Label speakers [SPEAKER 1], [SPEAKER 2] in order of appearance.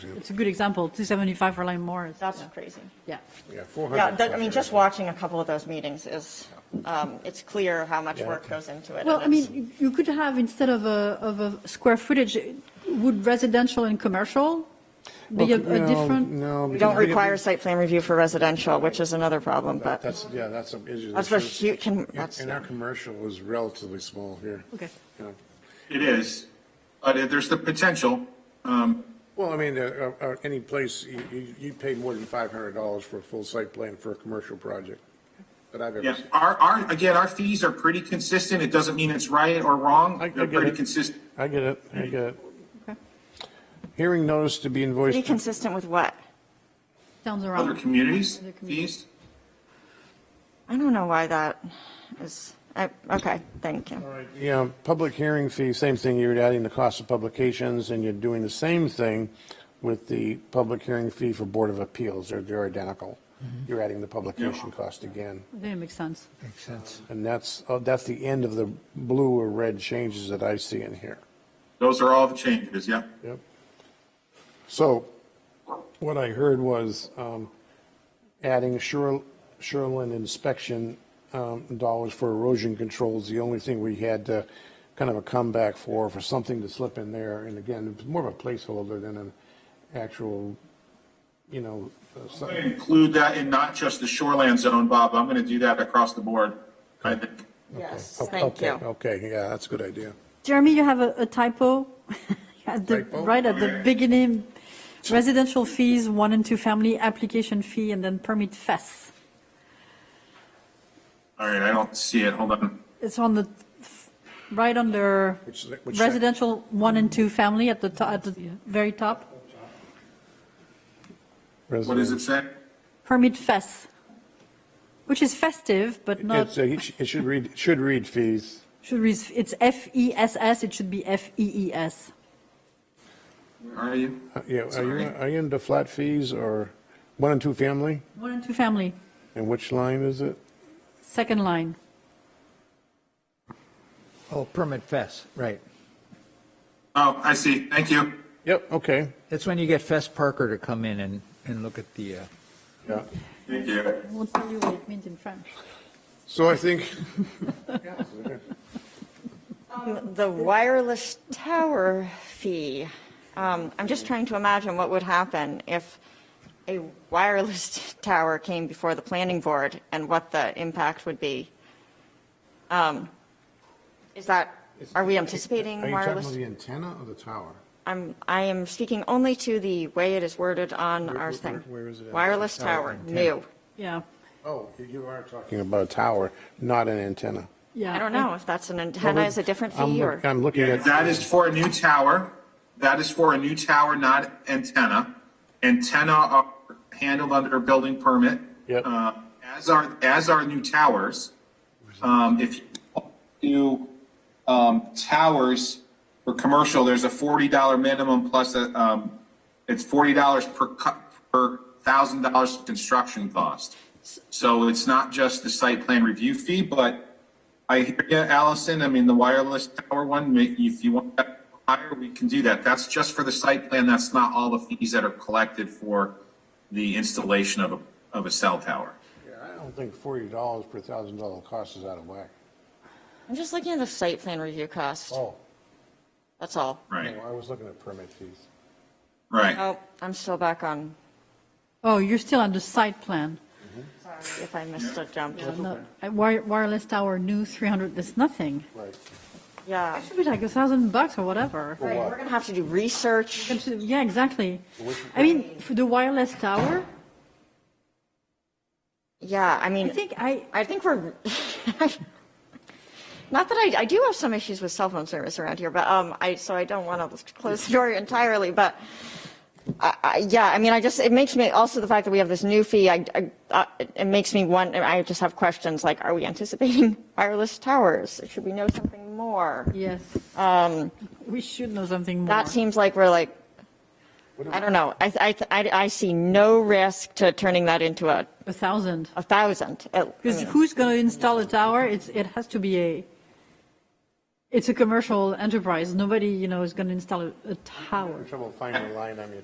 [SPEAKER 1] It's a good example, 275 for Lane Moore. It's-
[SPEAKER 2] That's crazy.
[SPEAKER 1] Yeah.
[SPEAKER 3] Yeah, 400.
[SPEAKER 2] Yeah, that- I mean, just watching a couple of those meetings is, um, it's clear how much work goes into it.
[SPEAKER 1] Well,
[SPEAKER 2] and
[SPEAKER 1] I
[SPEAKER 2] it's-
[SPEAKER 1] mean, you- you could have, instead of a, of a square footage, would residential and commercial be a a
[SPEAKER 3] No,
[SPEAKER 1] different?
[SPEAKER 3] No.
[SPEAKER 2] We
[SPEAKER 3] because
[SPEAKER 2] don't require site plan review for residential, which is another problem, but
[SPEAKER 3] That's, yeah, that's an issue.
[SPEAKER 2] That's where hu- can- that's-
[SPEAKER 3] And our commercial is relatively small here.
[SPEAKER 1] Okay.
[SPEAKER 3] You know.
[SPEAKER 4] It is, but if there's the potential. um,
[SPEAKER 3] Well, I mean, uh, uh, uh, any place, you, you, you pay more than $500 for a full site plan for a commercial project that I've ever
[SPEAKER 4] Yeah,
[SPEAKER 3] seen.
[SPEAKER 4] our, our, again, our fees are pretty consistent. It doesn't mean it's right or wrong.
[SPEAKER 3] I- I
[SPEAKER 4] They're
[SPEAKER 3] get
[SPEAKER 4] pretty
[SPEAKER 3] it.
[SPEAKER 4] consistent.
[SPEAKER 3] I get it, I get it. Hearing notice to be
[SPEAKER 2] be
[SPEAKER 3] invoiced.
[SPEAKER 2] consistent with what?
[SPEAKER 1] Sounds
[SPEAKER 4] Other
[SPEAKER 1] around.
[SPEAKER 4] communities,
[SPEAKER 1] Other communities.
[SPEAKER 4] fees.
[SPEAKER 2] I don't know why that is, I- okay, thank you.
[SPEAKER 3] Yeah, um, public hearing fee, same thing, you're adding the cost of publications, and you're doing the same thing with the public hearing fee for Board of Appeals, they're, they're identical. You're adding the publication cost again,
[SPEAKER 1] Then it makes sense.
[SPEAKER 5] Makes sense.
[SPEAKER 3] and that's, oh, that's the end of the blue or red changes that I see in here.
[SPEAKER 4] Those are all the changes, yeah.
[SPEAKER 3] Yep. So what I heard was um, adding shore- shoreline inspection um, dollars for erosion controls, the only thing we had to kind of a comeback for, for something to slip in there. And again, it's more of a placeholder than an actual, you know, uh, so-
[SPEAKER 4] Include that in not just the shoreland zone, Bob. I'm going to do that across the board. I think.
[SPEAKER 2] Yes,
[SPEAKER 3] Oh,
[SPEAKER 2] thank
[SPEAKER 3] okay,
[SPEAKER 2] you.
[SPEAKER 3] Okay, yeah, that's a good idea.
[SPEAKER 1] Jeremy, you have a a typo? At the-
[SPEAKER 3] Typo?
[SPEAKER 1] Right at the beginning, residential fees, one and two family, application fee, and then permit fees.
[SPEAKER 4] All right, I don't see it. Hold on.
[SPEAKER 1] It's on the, right under
[SPEAKER 3] Which- which sec-
[SPEAKER 1] residential one and two family at the, to- at the very top,
[SPEAKER 4] What does it say?
[SPEAKER 1] permit fees, which is festive, but
[SPEAKER 3] It's,
[SPEAKER 1] not,
[SPEAKER 3] uh, It sh- it should read, it should read fees.
[SPEAKER 1] should read, it's F-E-S-S, it should be E F-E-E-S.
[SPEAKER 4] Where Are you?
[SPEAKER 3] Uh, Yeah, are you,
[SPEAKER 4] Sorry.
[SPEAKER 3] are you into flat fees or one and two family?
[SPEAKER 1] One and two family,
[SPEAKER 3] And which line is it?
[SPEAKER 1] second line.
[SPEAKER 5] Oh, permit fest, right.
[SPEAKER 4] Oh, I see. Thank you.
[SPEAKER 3] Yep, okay.
[SPEAKER 5] That's when you get Fest Parker to come in and, and look at the, uh,
[SPEAKER 3] Yeah.
[SPEAKER 4] Thank you.
[SPEAKER 1] I won't tell you what it means in French.
[SPEAKER 3] So I think,
[SPEAKER 2] The wireless tower fee, um, I'm just trying to imagine what would happen if a wireless tower came before the planning board and what the impact would be. Um, Is that, are we anticipating
[SPEAKER 3] are you talking about
[SPEAKER 2] wireless?
[SPEAKER 3] the antenna or the tower?
[SPEAKER 2] I'm, I am speaking only to the way it is worded on
[SPEAKER 3] Where-
[SPEAKER 2] our
[SPEAKER 3] where-
[SPEAKER 2] thing.
[SPEAKER 3] where is it?
[SPEAKER 2] Wireless
[SPEAKER 5] Tower
[SPEAKER 2] tower,
[SPEAKER 5] antenna.
[SPEAKER 2] new.
[SPEAKER 1] Yeah,
[SPEAKER 3] Oh, you- you are talking about a tower, not an antenna.
[SPEAKER 1] yeah.
[SPEAKER 2] I don't know if that's an antenna is a different
[SPEAKER 3] I'm
[SPEAKER 2] fee
[SPEAKER 3] look-
[SPEAKER 2] or,
[SPEAKER 3] I'm looking at.
[SPEAKER 4] That is for a new tower. That is for a new tower, not antenna. Antenna are handled under a building permit.
[SPEAKER 3] Yep.
[SPEAKER 4] Uh, As are, as are new towers. Um, If you do um, towers for commercial, there's a $40 minimum plus, a, um, it's $40 per, cu- per thousand dollars construction cost. So it's not just the site plan review fee, but I hear you, Allison. I mean, the wireless tower one, ma- if you want that higher, we can do that. That's just for the site plan. That's not all the fees that are collected for the installation of a, of a cell tower.
[SPEAKER 3] I don't think forty dollars per thousand dollar cost is out of whack.
[SPEAKER 2] I'm just looking at the site plan review cost,
[SPEAKER 3] Oh,
[SPEAKER 2] that's all.
[SPEAKER 4] Right,
[SPEAKER 3] no, I was looking at permit fees.
[SPEAKER 4] right.
[SPEAKER 2] Oh, I'm still back on,
[SPEAKER 1] Oh, you're still on the site plan.
[SPEAKER 2] if I missed a jump.
[SPEAKER 1] No, uh, wire- Wireless tower, new 300, that's nothing.
[SPEAKER 3] Right.
[SPEAKER 2] Yeah.
[SPEAKER 1] Should be like a thousand bucks or whatever.
[SPEAKER 3] Oh.
[SPEAKER 2] Right, we're gonna have to do research.
[SPEAKER 1] Yeah, exactly. I mean, for the wireless tower,
[SPEAKER 2] Yeah, I
[SPEAKER 1] I
[SPEAKER 2] mean,
[SPEAKER 1] think I,
[SPEAKER 2] I think we're, not that I, I do have some issues with cell phone service around here, but, um, I, so I don't want to close the door entirely, but, I, I, yeah, I mean, I just, it makes me, also the fact that we have this new fee, I, I, uh, it- it makes me want, I just have questions like, are we anticipating wireless towers? Should we know something more?
[SPEAKER 1] yes,
[SPEAKER 2] Um,
[SPEAKER 1] we should know something more.
[SPEAKER 2] that seems like we're like, I don't know, I, I, I, I see no risk to turning that into a,
[SPEAKER 1] A thousand.
[SPEAKER 2] a thousand. at- I
[SPEAKER 1] Because
[SPEAKER 2] mean-
[SPEAKER 1] who's going to install a tower? It's, it has to be a, it's a commercial enterprise. Nobody, you know, is going to install a, a tower.
[SPEAKER 3] Trouble finding a line on your